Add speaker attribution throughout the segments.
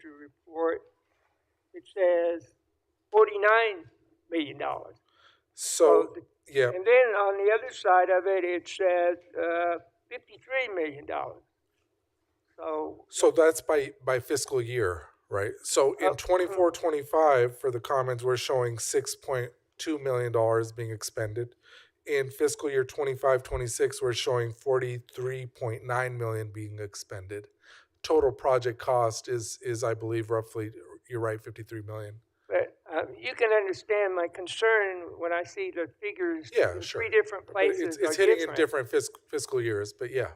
Speaker 1: to report, it says forty-nine million dollars.
Speaker 2: So, yeah,
Speaker 1: And then on the other side of it, it says, uh, fifty-three million dollars. So,
Speaker 2: so that's by, by fiscal year, right? So in
Speaker 1: Uh,
Speaker 2: twenty-four, twenty-five, for the commons, we're showing six point two million dollars being expended. In fiscal year twenty-five, twenty-six, we're showing forty-three point nine million being expended. Total project cost is, is I believe roughly, you're right, fifty-three million.
Speaker 1: but, um, you can understand my concern when I see the figures
Speaker 2: Yeah,
Speaker 1: in
Speaker 2: sure.
Speaker 1: three different
Speaker 2: But
Speaker 1: places are
Speaker 2: It's, it's hitting in different fiscal, fiscal years, but yeah.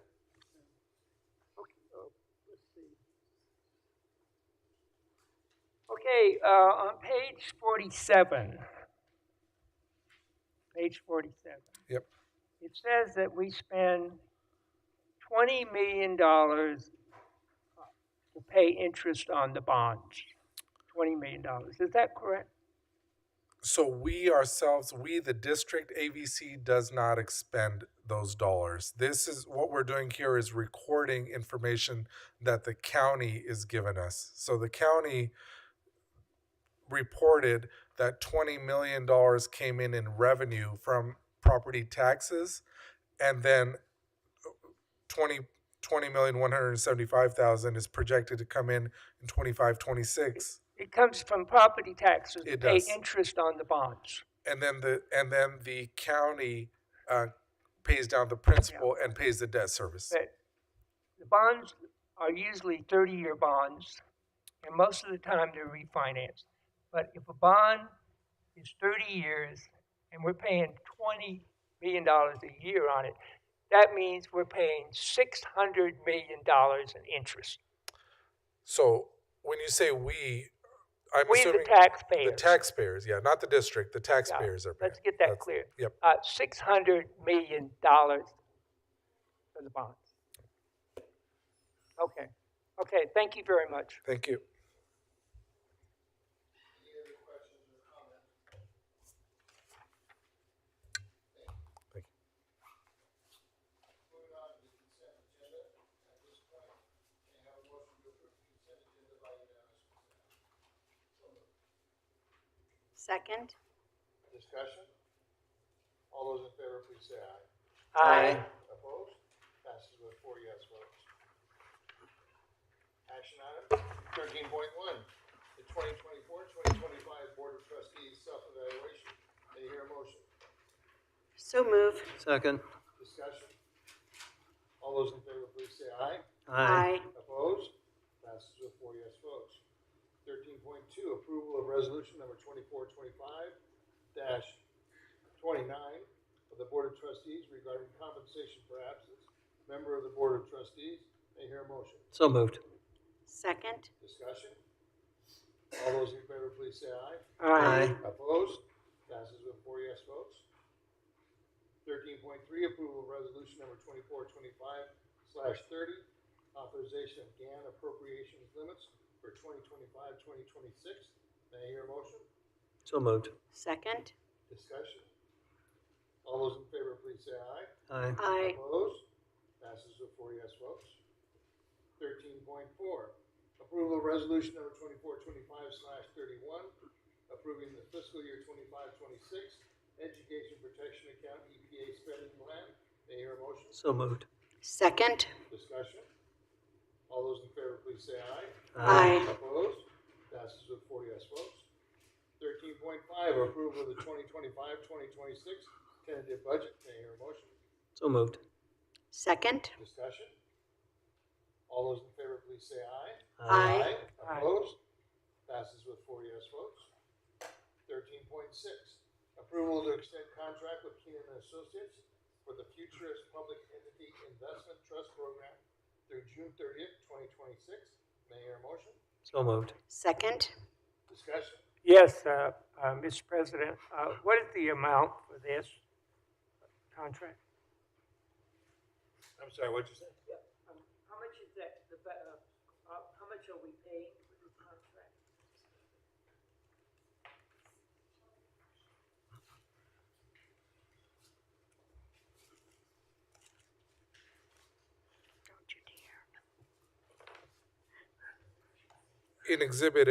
Speaker 1: Okay, uh, on page forty-seven. Page forty-seven.
Speaker 2: Yep.
Speaker 1: It says that we spend twenty million dollars to pay interest on the bonds. Twenty million dollars, is that correct?
Speaker 2: So we ourselves, we the district AVC does not expend those dollars. This is what we're doing here is recording information that the county is giving us. So the county reported that twenty million dollars came in in revenue from property taxes and then twenty twenty million one hundred and seventy five thousand is projected to come in in twenty five twenty six.
Speaker 1: It comes from property taxes to
Speaker 2: It
Speaker 1: pay
Speaker 2: does.
Speaker 1: interest on the bonds.
Speaker 2: and then the and then the county uh, pays down the principal and pays the debt service.
Speaker 1: But the bonds are usually thirty-year bonds, and most of the time they're refinanced. But if a bond is thirty years and we're paying twenty million dollars a year on it, that means we're paying six hundred million dollars in interest.
Speaker 2: So when you say we, I'm
Speaker 1: We, the
Speaker 2: assuming
Speaker 1: taxpayers.
Speaker 2: the taxpayers, yeah, not the district. The taxpayers are paying.
Speaker 1: Let's get that
Speaker 2: That's-
Speaker 1: clear.
Speaker 2: Yep.
Speaker 1: Uh, six hundred million dollars for the bonds. Okay, okay, thank you very much.
Speaker 2: Thank you.
Speaker 3: Second?
Speaker 4: Discussion? All those in favor, please say aye.
Speaker 1: Aye.
Speaker 4: Opposed? Passes with four yes votes. Action item thirteen point one, the 2024-2025 Board of Trustees self-evaluation. May I hear a motion?
Speaker 3: So move.
Speaker 5: Second.
Speaker 4: Discussion? All those in favor, please say aye.
Speaker 3: Aye.
Speaker 4: Opposed? Passes with four yes votes. Thirteen point two, approval of resolution number twenty-four twenty-five twenty-nine of the Board of Trustees regarding compensation for absence. Member of the Board of Trustees, may I hear a motion.
Speaker 5: So moved.
Speaker 3: Second?
Speaker 4: Discussion? All those in favor, please say aye.
Speaker 5: Aye.
Speaker 4: Opposed? Passes with four yes votes. Thirteen point three, approval of resolution number twenty-four twenty-five slash thirty, authorization of GAN appropriations limits for 2025-2026. May I hear a motion?
Speaker 5: So moved.
Speaker 3: Second?
Speaker 4: Discussion? All those in favor, please say aye.
Speaker 5: Aye.
Speaker 3: Aye.
Speaker 4: Opposed? Passes with four yes votes. Thirteen point four, approval of resolution number twenty-four twenty-five slash thirty-one, approving the fiscal year twenty-five twenty-six education protection account EPA spending plan. May I hear a motion?
Speaker 5: So moved.
Speaker 3: Second?
Speaker 4: Discussion? All those in favor, please say aye.
Speaker 3: Aye.
Speaker 4: Opposed? Passes with four yes votes. Thirteen point five, approval of the 2025-2026 tentative budget. May I hear a motion?
Speaker 5: So moved.
Speaker 3: Second?
Speaker 4: Discussion? All those in favor, please say aye.
Speaker 3: Aye.
Speaker 1: Aye.
Speaker 4: Opposed? Passes with four yes votes. Thirteen point six, approval to extend contract with Keenan and Associates for the Futurist Public Entity Investment Trust Program through June thirtieth, twenty twenty-six. May I hear a motion?
Speaker 5: So moved.
Speaker 3: Second?
Speaker 4: Discussion?
Speaker 1: Yes, uh, uh, Mr. President, uh, what is the amount for this contract?
Speaker 4: I'm sorry, what'd you say?
Speaker 1: How much is that, the, uh, how much are we paying for this contract?
Speaker 3: Don't you dare.
Speaker 2: in Exhibit A,